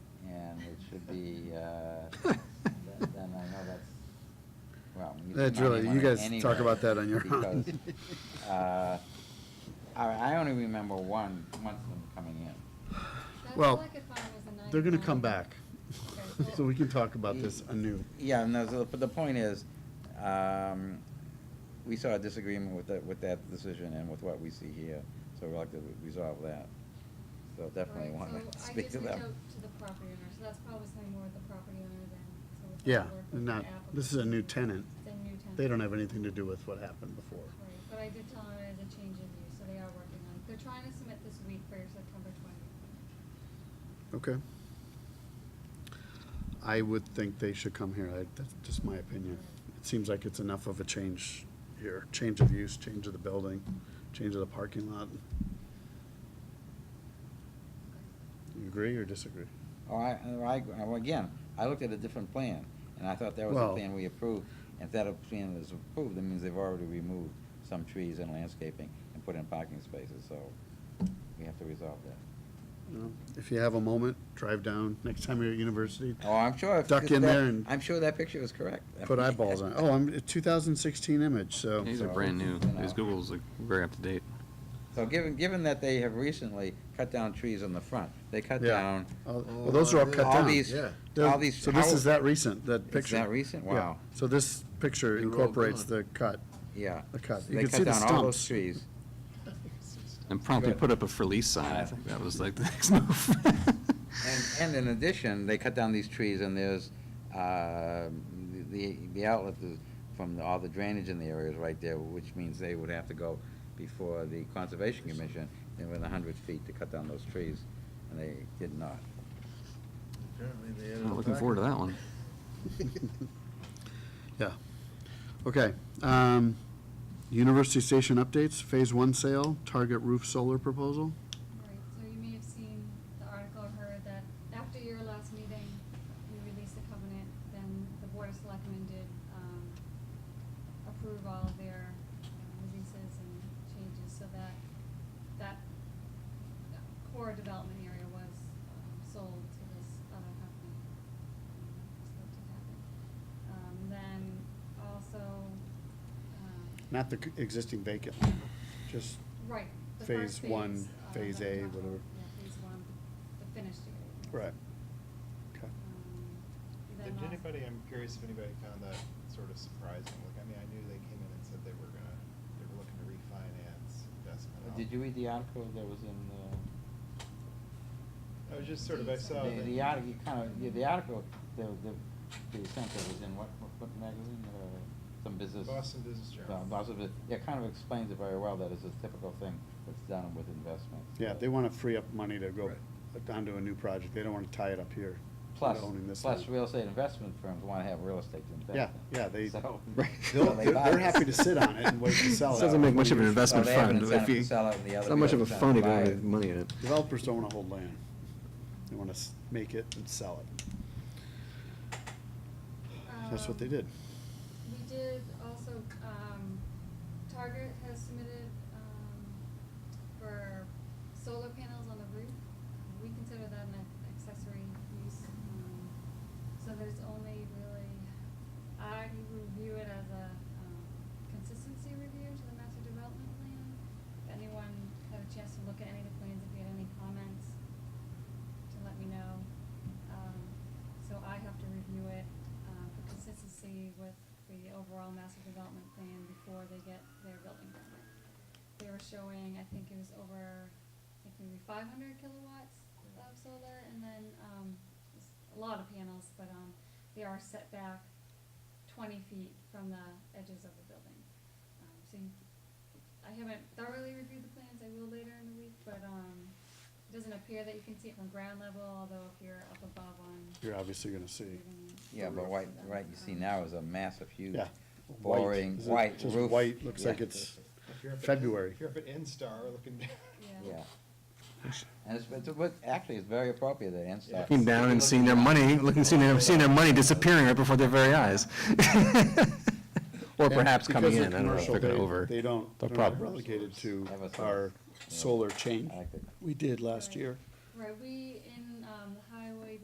should be, uh, then I know that's, well. we need to That's remind really- you anyone guys talk anyway, about that on your own. because, uh, I, I only remember one, once them coming in. That's Well, all I could find was the They're gonna 99. come back, Okay, well, so we can talk about this anew. Yeah, no, so- but the point is, um, we saw a disagreement with that, with that decision and with what we see here, so we'd like to resolve that. So definitely right, want to so speak to I just reached them. out to the property owner, so that's probably something more with the property owner than, so we'll Yeah, probably work with and the not, applicant. this is a new tenant. The new tenant. They don't have anything to do with what happened before. Right, but I did tell them it is a change in use, so they are working on, they're trying to submit this week for September twentieth. Okay. I would think they should come here. I, that's just my opinion. It seems like it's enough of a change here, change of use, change of the building, change of the parking lot. You agree or disagree? Oh, I, oh, I, well, again, I looked at a different plan, and I thought that was the Well- plan we approved. And if that plan is approved, that means they've already removed some trees and landscaping and put in parking spaces, so we have to resolve that. No? If you have a moment, drive down next time you're at university, Oh, I'm sure. if- Duck in that- there and- I'm sure that picture is correct. put eyeballs on it. Oh, I'm, a 2016 image, so. Yeah. These are So- brand new. You know. These Google's like very up to date. So given, given that they have recently cut down trees on the front, they cut Yeah. down Oh, Well, those are all cut all down. these, yeah. all these. So this how- is that recent, that It's picture. that recent? Yeah. Wow. So this picture They're all incorporates gone. the cut. Yeah. The cut. You They can cut see the down all those stumps. trees. And promptly Good. put up a for lease sign. I think that was like the next move. And, and in addition, they cut down these trees and there's, uh, the, the outlet is from all the drainage in the area is right there, which means they would have to go before the Conservation Commission and within a hundred feet to cut down those trees, and they did not. Apparently they added Not a looking forward to packet. that one. Yeah. Okay. um, University Station updates, Phase One sale, Target Roof Solar proposal. Right, so you may have seen the article or heard that after your last meeting, you released the covenant, then the board of selectmen did, um, approve all of their uh, releases and changes so that, that core development area was um, sold to this other company. So that did happen. Um, then also, um, Not the c- existing vacant, just, Right. the Phase first one, phase, uh, phase that- A, not the- whatever. Yeah, phase one, the finished area. Um, right. Okay. Did anybody, um, I'm curious if anybody found that sort of surprising, like, I mean, I knew they came in and said they were gonna, they were looking to refinance investment. out- Did you read the article that was in I was just sort of, I saw. the, that- the, the article, kind of, yeah, the article, the, the, the sense that was in what, what- what magazine, uh, some business? Boston Business Journal. Uh, Boston, Bus- yeah, kind of explains it very well, that it's a typical thing that's done with investments. Yeah, they want to free up money to go onto a new project. They don't want to tie it up here. to Plus, owning this plus thing. real estate investment firms want to have real estate to invest Yeah, in. yeah, they, So- right. so They'll- they they're buy they're this. happy to sit on it and wait to sell it. Oh, Doesn't make much of an Years. investment So they have an fund, but if incentive to you- sell it and the It's other not much of people don't a fund if you buy don't it. have money in it. Developers don't want to hold land. They want to make it and sell it. uh, That's Oh. what they did. We did also, um, Target has submitted, um, for solar panels on the roof. We consider that an accessory use, um, so there's only really, I review it as a, um, consistency review to the master development plan. If anyone had a chance to look at any of the plans, if you had any comments, to let me know. Um, So I have to review it uh, for consistency with the overall master development plan before they get their building permit. They were showing, I think it was over, I think maybe five hundred kilowatts of solar, and then, um, s- a lot of panels, but, um, they are set back twenty feet from the edges of the building. Um, So you, I haven't thoroughly reviewed the plans, I will later in the week, but, um, it doesn't appear that you can see it from ground level, although if you're up above on. You're obviously going to see. Yeah, but white, right, you um, see now is a massive, huge, Yeah. boring, Is it white Just roof. white, looks Yeah. like it's, If you're up at- February. If you're up at Instar looking down. Yeah. And it's, it's, but actually, it's very appropriate that N-Star. Came down and seen their money, looking, seeing their, seeing their money disappearing right before their very eyes. Or And perhaps coming because of in, I don't know if commercial, they're gonna they- over. They don't, they're they're not probably- relegated to Have a solar. our solar change I like that. we did last year. Right, we um,